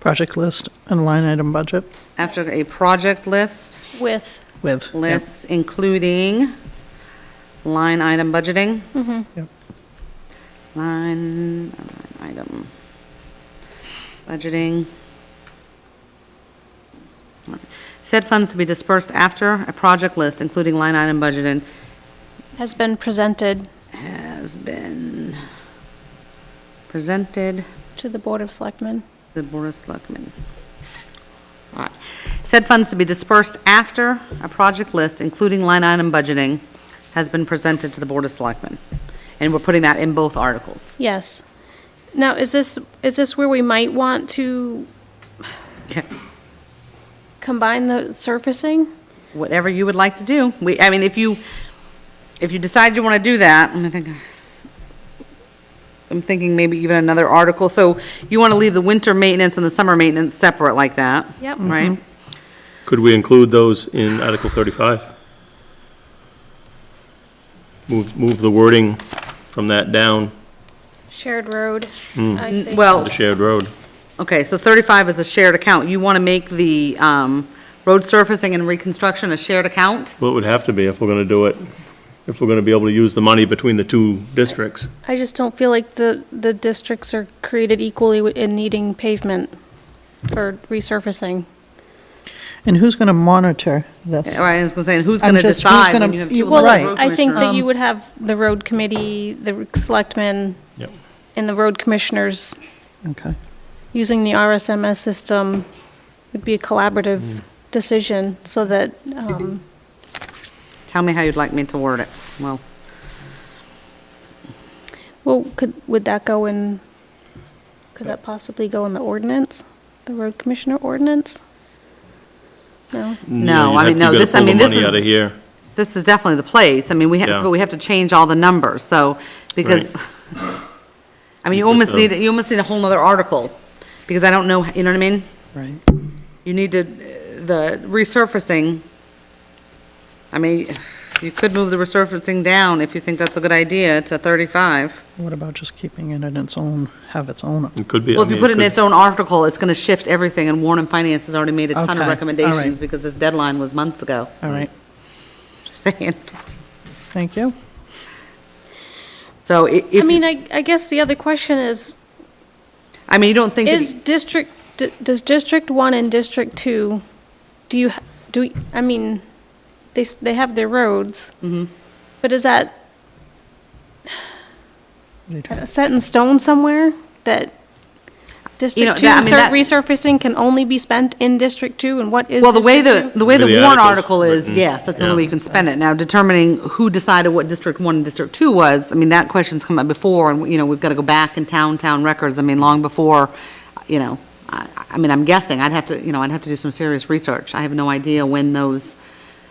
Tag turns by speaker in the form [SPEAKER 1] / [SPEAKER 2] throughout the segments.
[SPEAKER 1] project list and line item budget
[SPEAKER 2] after a project list,
[SPEAKER 3] with,
[SPEAKER 1] with. Yep.
[SPEAKER 2] lists including line item budgeting.
[SPEAKER 1] Yep.
[SPEAKER 2] Line item budgeting. Said funds to be dispersed after a project list, including line item budgeting,
[SPEAKER 3] has been presented
[SPEAKER 2] has been presented.
[SPEAKER 3] to the Board of Selectmen.
[SPEAKER 2] The Board of Selectmen. All right. Said funds to be dispersed after a project list, including line item budgeting, has been presented to the Board of Selectmen. And we're putting that in both articles.
[SPEAKER 3] Yes. Now, is this, is this where we might want to
[SPEAKER 2] Okay.
[SPEAKER 3] combine the surfacing?
[SPEAKER 2] Whatever you would like to do. We, I mean, if you, if you decide you want to do that, I'm thinking, I'm thinking maybe even another article. So you want to leave the winter maintenance and the summer maintenance separate like that?
[SPEAKER 3] Yep.
[SPEAKER 2] Right?
[SPEAKER 4] Could we include those in Article 35? Move, move the wording from that down
[SPEAKER 3] Shared road, I see.
[SPEAKER 2] Well,
[SPEAKER 4] to the shared road.
[SPEAKER 2] Okay, so 35 is a shared account. You want to make the um, road surfacing and reconstruction a shared account?
[SPEAKER 4] Well, it would have to be if we're going to do it, if we're going to be able to use the money between the two districts.
[SPEAKER 3] I just don't feel like the, the districts are created equally in needing pavement or resurfacing.
[SPEAKER 1] And who's going to monitor this?
[SPEAKER 2] Right, I was going to say, who's
[SPEAKER 1] I'm
[SPEAKER 2] going to
[SPEAKER 1] just- who's
[SPEAKER 2] decide when
[SPEAKER 1] gonna-
[SPEAKER 2] you have
[SPEAKER 1] you-
[SPEAKER 2] two
[SPEAKER 1] Well,
[SPEAKER 3] Well,
[SPEAKER 1] Right.
[SPEAKER 2] elected road
[SPEAKER 3] I think
[SPEAKER 2] commissioners?
[SPEAKER 3] that you would have the road committee, the selectmen,
[SPEAKER 4] Yep.
[SPEAKER 3] and the road commissioners
[SPEAKER 1] Okay.
[SPEAKER 3] using the RSMS system would be a
[SPEAKER 2] Hmm.
[SPEAKER 3] collaborative decision so that, um,
[SPEAKER 2] Tell me how you'd like me to word it. Well,
[SPEAKER 3] well, could, would that go in, could that possibly go in the ordinance? The road commissioner ordinance? No?
[SPEAKER 2] no,
[SPEAKER 4] you
[SPEAKER 2] I
[SPEAKER 4] have-
[SPEAKER 2] mean,
[SPEAKER 4] you
[SPEAKER 2] no,
[SPEAKER 4] gotta
[SPEAKER 2] this, I
[SPEAKER 4] pull
[SPEAKER 2] mean, this
[SPEAKER 4] the money out of
[SPEAKER 2] is,
[SPEAKER 4] here.
[SPEAKER 2] this is definitely the place. I mean, we have,
[SPEAKER 4] Yeah.
[SPEAKER 2] but we have to change all the numbers, so, because,
[SPEAKER 4] Right.
[SPEAKER 2] I mean, you
[SPEAKER 4] You put
[SPEAKER 2] almost
[SPEAKER 4] the-
[SPEAKER 2] need, you almost need a whole nother article, because I don't know, you know what I mean?
[SPEAKER 1] Right.
[SPEAKER 2] You need to, uh, the resurfacing, I mean, you could move the resurfacing down if you think that's a good idea to 35.
[SPEAKER 1] What about just keeping it in its own, have its own?
[SPEAKER 4] It could be. I
[SPEAKER 2] Well, if you
[SPEAKER 4] mean,
[SPEAKER 2] put it in
[SPEAKER 4] could-
[SPEAKER 2] its own article, it's going to shift everything, and Warren and Finance has already made a ton
[SPEAKER 1] Okay,
[SPEAKER 2] of
[SPEAKER 1] all
[SPEAKER 2] recommendations
[SPEAKER 1] right.
[SPEAKER 2] because this deadline was months ago,
[SPEAKER 1] All right,
[SPEAKER 2] just saying.
[SPEAKER 1] thank you.
[SPEAKER 2] So i- if,
[SPEAKER 3] I mean,
[SPEAKER 2] you-
[SPEAKER 3] I, I guess the other question is,
[SPEAKER 2] I mean, you don't think,
[SPEAKER 3] is
[SPEAKER 2] that-
[SPEAKER 3] district, d- does District One and District Two, do you, ha- do, I mean, they, s- they have their roads.
[SPEAKER 2] Mm-hmm.
[SPEAKER 3] But is that set in stone somewhere that District Two
[SPEAKER 2] that- I mean,
[SPEAKER 3] sur-
[SPEAKER 2] that-
[SPEAKER 3] resurfacing can only be spent in District Two, and what is
[SPEAKER 2] well, the way the,
[SPEAKER 3] District Two?
[SPEAKER 2] the way the
[SPEAKER 4] Maybe the
[SPEAKER 2] Warren
[SPEAKER 4] article's
[SPEAKER 2] article is,
[SPEAKER 4] written,
[SPEAKER 2] yes, that's the only
[SPEAKER 4] yeah.
[SPEAKER 2] way you can spend it. Now, determining who decided what District One and District Two was, I mean, that question's come up before, and, you know, we've got to go back in town, town records, I mean, long before, you know, I, I mean, I'm guessing, I'd have to, you know, I'd have to do some serious research. I have no idea when those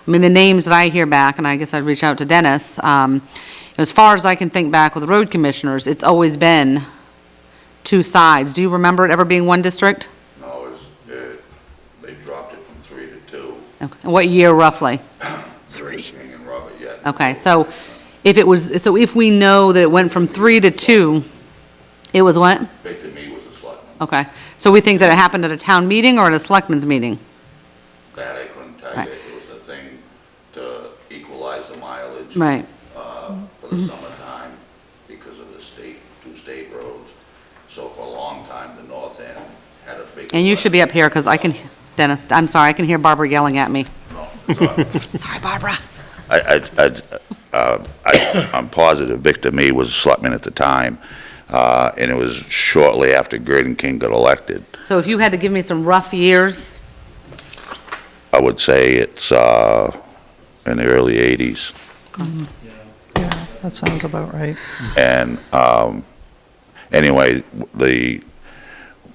[SPEAKER 2] I mean, the names that I hear back, and I guess I'd reach out to Dennis, um, as far as I can think back with the road commissioners, it's always been two sides. Do you remember it ever being one district?
[SPEAKER 5] No, it was, uh, they dropped it from three to two.
[SPEAKER 2] Okay. And What year roughly?
[SPEAKER 5] Three. King and Robert, yeah.
[SPEAKER 2] Okay, so if it was, so if we know that it went from three to two, it was what?
[SPEAKER 5] Victor Me was a selectman.
[SPEAKER 2] Okay, so we think that it happened at a town meeting or at a selectmen's meeting?
[SPEAKER 5] That I couldn't tell
[SPEAKER 2] Right.
[SPEAKER 5] you. It was a thing to equalize the mileage.
[SPEAKER 2] Right, Mm-hmm.
[SPEAKER 5] uh, For the summertime because of the state, two state roads. So for a long time, the north end had a big.
[SPEAKER 2] and you should be up here, because I can, Dennis, I'm sorry, I can hear Barbara yelling at me.
[SPEAKER 5] No, it's all right.
[SPEAKER 2] Sorry, Barbara.
[SPEAKER 5] I, I, I, uh, I- I'm positive Victor Me was a selectman at the time, uh, and it was shortly after Gordon King got elected.
[SPEAKER 2] So if you had to give me some rough years,
[SPEAKER 5] I would say it's uh, in the early 80s.
[SPEAKER 1] Yeah, that sounds about right.
[SPEAKER 5] And um, anyway, the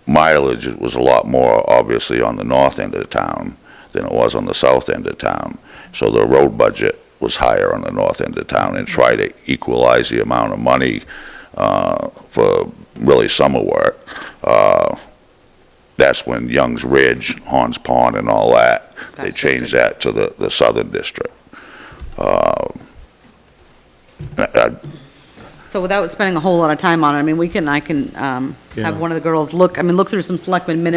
[SPEAKER 5] mileage was a lot more, obviously, on the north end of the town than it was on the south end of town. So the road budget was higher on the north end of town and try to equalize the amount of money uh, for really summer work. Uh, That's when Young's Ridge, Horns Pond, and all that, they
[SPEAKER 2] Gotcha.
[SPEAKER 5] changed that to the the southern district. Uh, I- I-
[SPEAKER 2] So without spending a whole lot of time on it, I mean, we can, I can um,
[SPEAKER 4] Yeah.
[SPEAKER 2] have one of the girls look, I mean, look through some selectmen minutes